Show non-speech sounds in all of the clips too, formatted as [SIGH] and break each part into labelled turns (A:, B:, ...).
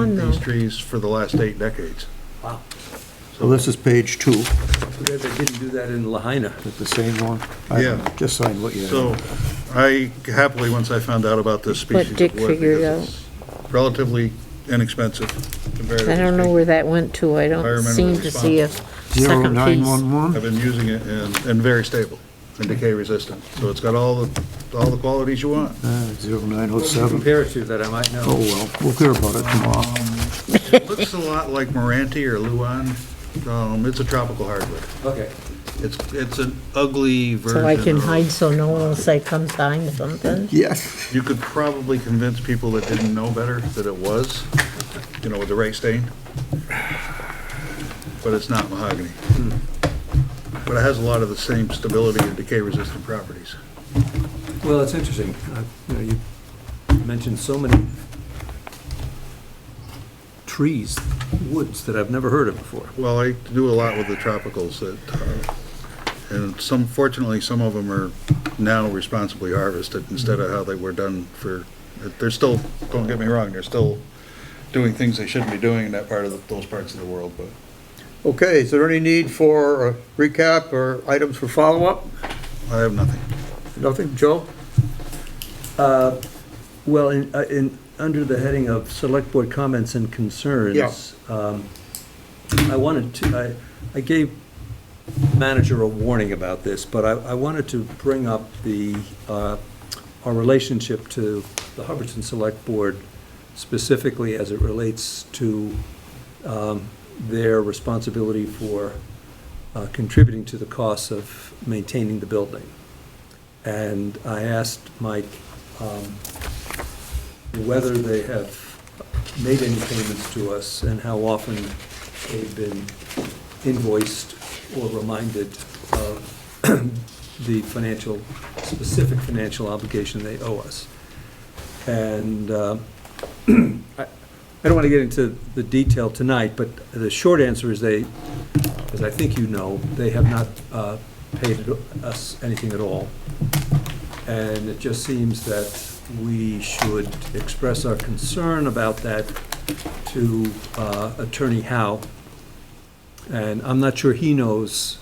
A: On
B: these
A: though.
B: trees for the last eight decades.
C: Wow.
D: So this is page two,
C: Forgot they didn't do that in Lahaina.
D: is the same one? I
B: Yeah.
D: Just signed what you had.
B: So I happily, once I found out about this
A: What
B: species of wood.
A: Dick figured
B: because it's Relatively inexpensive compared to.
A: I don't know where that went to. I don't
B: Environmental
A: seem to see a
D: Zero
A: second
D: nine
A: piece.
D: one one?
B: I've been using it and, and very stable and decay resistant. So it's got all the, all the qualities you want.
D: Uh, zero nine oh seven.
C: Compare it to that, I might
D: Oh,
C: know.
D: well, we'll hear about it tomorrow.
B: It looks a lot like Moranti or Luan. Um, it's a tropical hardwood.
C: Okay.
B: It's, it's an ugly version.
A: So I can
B: of-
A: hide so no one will say come sign something.
D: Yes.
B: You could probably convince people that didn't know better that it was, you know, with the right stain. But it's not mahogany. But it has a lot of the same stability and decay resistant properties.
C: Well, it's interesting. Uh, You know, you mentioned so many trees, woods that I've never heard of before.
B: Well, I do a lot with the tropicals that, uh, and some, fortunately, some of them are now responsibly harvested instead of how they were done for, they're still, don't get me wrong, they're still doing things they shouldn't be doing in that part of, the- those parts of the world, but
E: Okay, is there any need for a recap or items for follow-up?
B: I have nothing.
E: Nothing, Joe?
C: Uh, Well, in, uh, in, under the heading of Select Board Comments and
E: Yeah.
C: Concerns, um, I wanted to, I, I gave manager a warning about this, but I, I wanted to bring up the, uh, our relationship to the Hubbardson Select Board specifically as it relates to um, their responsibility for uh, contributing to the costs of maintaining the building. And I asked Mike um, whether they have made any payments to us and how often they've been invoiced or reminded of [CLEARS THROAT] the financial, specific financial obligation they owe us. And uh, [CLEARS THROAT] I I don't want to get into the detail tonight, but the short answer is they, as I think you know, they have not uh, paid us anything at all. And it just seems that we should express our concern about that to uh, Attorney Howe. And I'm not sure he knows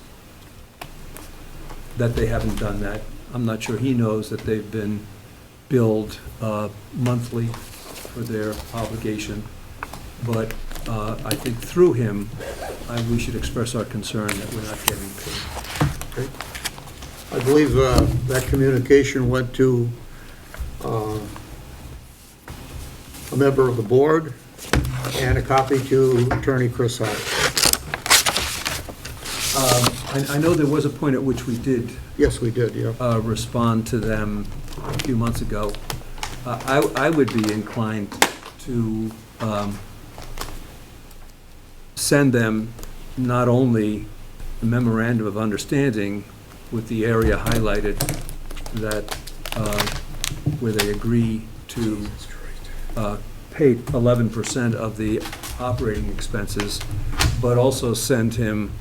C: that they haven't done that. I'm not sure he knows that they've been billed uh, monthly for their obligation. But uh, I think through him, I- we should express our concern that we're not getting paid.
E: I believe uh, that communication went to uh, a member of the board and a copy to Attorney Chris Howe.
C: Um, I I know there was a point at which we did
E: Yes, we did, yeah.
C: uh, respond to them a few months ago. Uh, I I would be inclined to um, send them not only a memorandum of understanding with the area highlighted that, uh, where they agree to uh, pay 11% of the operating expenses, but also send him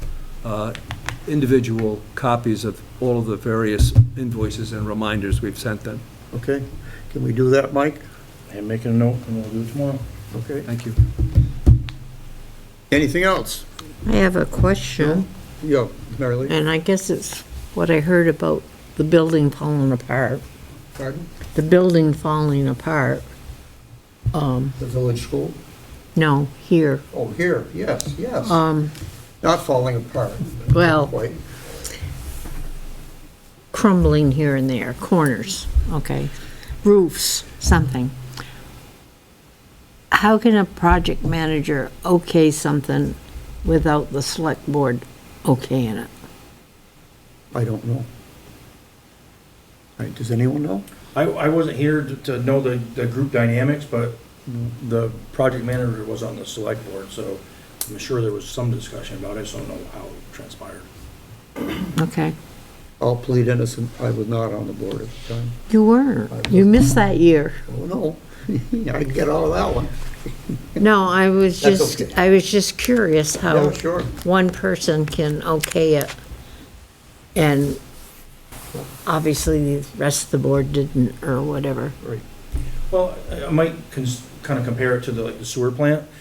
C: uh, individual copies of all of the various invoices and reminders we've sent them.
E: Okay, can we do that, Mike?
F: And make a note, and we'll do it tomorrow.
E: Okay.
C: Thank you.
E: Anything else?
A: I have a question,
E: Yeah, Mary Lee?
A: and I guess it's what I heard about the building falling apart.
E: Pardon?
A: The building falling apart. Um,
E: The village school?
A: no, here.
E: Oh, here, yes, yes.
A: Um,
E: Not falling apart.
A: Well-
E: Quite.
A: crumbling here and there, corners, okay, roofs, something. How can a project manager okay something without the select board okaying it?
E: I don't know. All right, does anyone know?
F: I, I wasn't here to, to know the, the group dynamics, but the project manager was on the select board, so I'm sure there was some discussion about it, so I don't know how it transpired.
A: Okay,
E: I'll plead innocent, I was not on the board at the time.
A: you were, you missed that year.
E: Oh, no, [LAUGHS] I can get out of that one.
A: No, I was
E: That's
A: just,
E: okay.
A: I was just curious how
E: Yeah, sure.
A: one person can okay it. And obviously the rest of the board didn't, or whatever.
E: Right.
F: Well, I I might kind of compare it to the, like, the sewer plant.